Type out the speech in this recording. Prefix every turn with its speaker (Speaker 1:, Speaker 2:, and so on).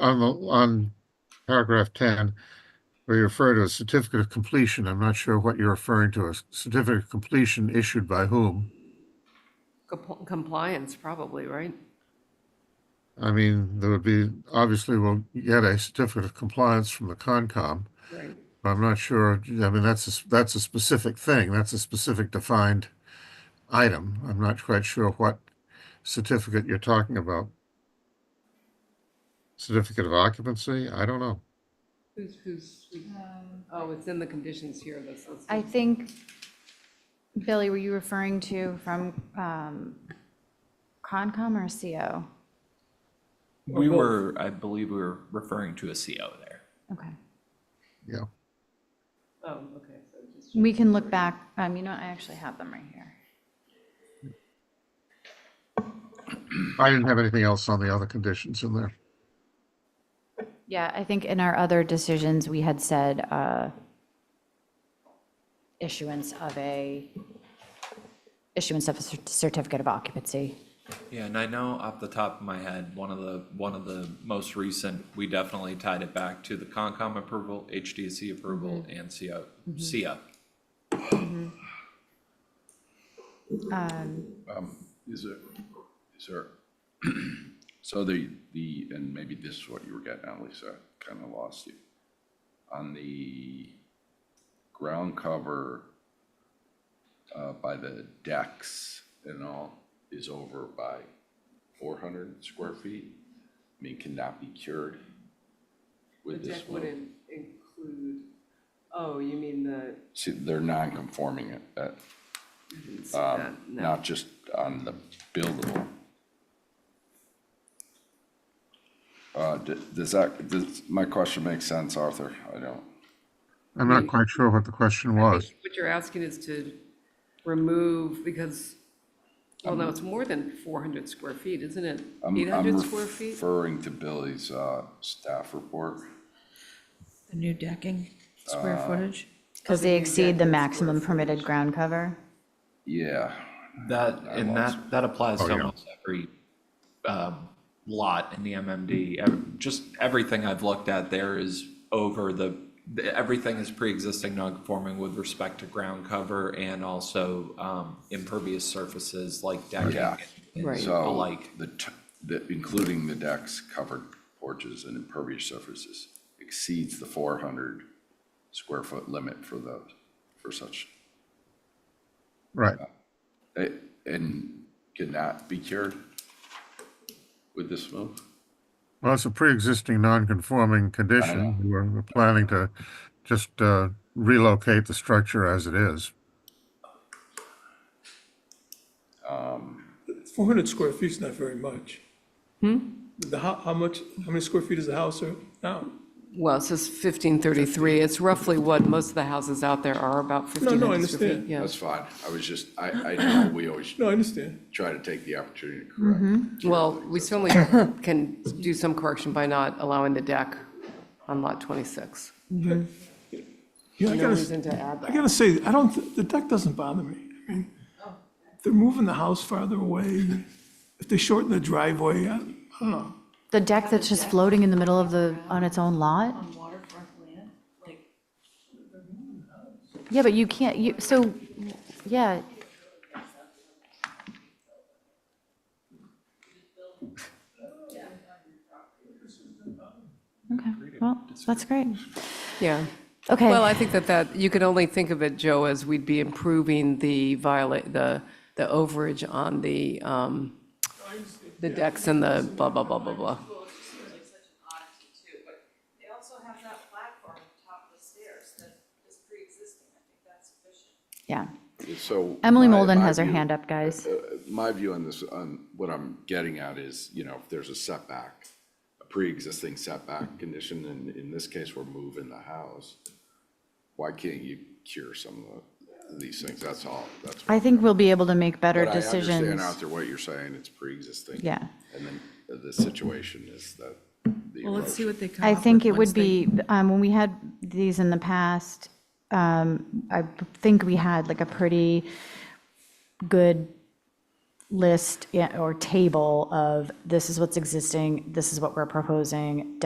Speaker 1: on the, on paragraph ten, where you refer to a certificate of completion, I'm not sure what you're referring to, a certificate of completion issued by whom?
Speaker 2: Compl- Compliance, probably, right?
Speaker 1: I mean, there would be, obviously, we'll get a certificate of compliance from the Concom.
Speaker 2: Right.
Speaker 1: but I'm not sure, I mean, that's, a s- that's a specific thing, that's a specific defined item. I'm not quite sure what certificate you're talking about. Certificate of occupancy? I don't know.
Speaker 2: Who's, who's,
Speaker 3: Um,
Speaker 2: oh, it's in the conditions here, this is.
Speaker 4: I think, Billy, were you referring to from um, Concom or CO?
Speaker 5: We were, I believe we were referring to a CO there.
Speaker 4: Okay.
Speaker 1: Yeah.
Speaker 2: Oh, okay, so just,
Speaker 4: We can look back, um, you know, I actually have them right here.
Speaker 1: I didn't have anything else on the other conditions in there.
Speaker 4: Yeah, I think in our other decisions, we had said uh, issuance of a, issuance of a cer- certificate of occupancy.
Speaker 5: Yeah, and I know off the top of my head, one of the, one of the most recent, we definitely tied it back to the Concom approval, HDC approval, and CO, CO.
Speaker 6: Is there, is there, so the, the, and maybe this is what you were getting at, Lisa, kind of lost you. On the ground cover uh, by the decks and all is over by four hundred square feet? I mean, cannot be cured
Speaker 2: the
Speaker 6: with this
Speaker 2: deck
Speaker 6: one?
Speaker 2: wouldn't include, oh, you mean the,
Speaker 6: See, they're non-conforming it, that,
Speaker 2: I didn't see
Speaker 6: um,
Speaker 2: that, no.
Speaker 6: not just on the buildable. Uh, d- Does that, does, my question make sense, Arthur? I don't,
Speaker 1: I'm not quite sure what the question was.
Speaker 2: What you're asking is to remove, because, well, no, it's more than 400 square feet, isn't it?
Speaker 6: Um, I'm- I'm
Speaker 2: 800 square feet?
Speaker 6: referring to Billy's uh, staff report.
Speaker 7: The new decking, square footage?
Speaker 4: Because they exceed the maximum permitted ground cover.
Speaker 6: Yeah,
Speaker 5: That, and that, that applies to
Speaker 1: yeah.
Speaker 5: almost every um, lot in the MMD. Ev- Just everything I've looked at there is over the, the- everything is pre-existing non-conforming with respect to ground cover and also um, impervious surfaces like decking
Speaker 6: Yeah.
Speaker 5: and
Speaker 2: Right.
Speaker 5: the
Speaker 6: so
Speaker 5: like.
Speaker 6: the, t- the, including the decks, covered porches and impervious surfaces exceeds the four hundred square foot limit for those, for such
Speaker 1: Right.
Speaker 6: A- And could not be cured with this move?
Speaker 1: Well, it's a pre-existing non-conforming condition. We We're we're planning to just uh, relocate the structure as it is.
Speaker 3: 400 square feet's not very much. The, how, how much, how many square feet is the house or- now?
Speaker 2: Well, it says 1533, it's roughly what most of the houses out there are, about
Speaker 3: no, I
Speaker 2: 1500 square feet,
Speaker 3: understand.
Speaker 2: yeah.
Speaker 6: That's fine. I was just, I, I know we always
Speaker 3: No, I understand.
Speaker 6: try to take the opportunity to
Speaker 4: Mm-hmm.
Speaker 6: correct.
Speaker 2: Well, we certainly can do some correction by not allowing the deck on lot 26.
Speaker 3: Yeah, I
Speaker 2: No
Speaker 3: gotta s-
Speaker 2: reason to add
Speaker 3: I
Speaker 2: that.
Speaker 3: gotta say, I don't, th- the deck doesn't bother me. I mean, they're moving the house farther away. If they shorten the driveway, I I don't know.
Speaker 4: The deck that's just floating in the middle of the, on its own lot?
Speaker 7: On waterfront land, like.
Speaker 4: Yeah, but you can't, you, so, yeah. Okay, well, that's great.
Speaker 2: Yeah.
Speaker 4: Okay.
Speaker 2: Well, I think that that, you can only think of it, Joe, as we'd be improving the violate, the, the overage on the, um, the decks and the blah, blah, blah, blah, blah.
Speaker 8: Well, it just seems like such an oddity too, but they also have that platform on top of the stairs that is pre-existing. I think that's sufficient.
Speaker 4: Yeah.
Speaker 6: So.
Speaker 4: Emily
Speaker 6: my-
Speaker 4: Molden
Speaker 6: my
Speaker 4: has her
Speaker 6: view-
Speaker 4: hand up, guys.
Speaker 6: My view on this, on what I'm getting at is, you know, if there's a setback, a pre-existing setback condition, and in this case, we're moving the house, why can't you cure some of the- these things? That's all. That's
Speaker 4: I think we'll be able to make better
Speaker 6: But I
Speaker 4: decisions.
Speaker 6: understand out there what you're saying, it's pre-existing.
Speaker 4: Yeah.
Speaker 6: And then the situation is that the
Speaker 7: Well, let's see
Speaker 6: erosion-
Speaker 7: what they come
Speaker 4: I
Speaker 7: up
Speaker 4: think
Speaker 7: with
Speaker 4: it
Speaker 7: once
Speaker 4: would
Speaker 7: they-
Speaker 4: be, um, when we had these in the past, um, I think we had like a pretty good list yeah, or table of this is what's existing, this is what we're proposing,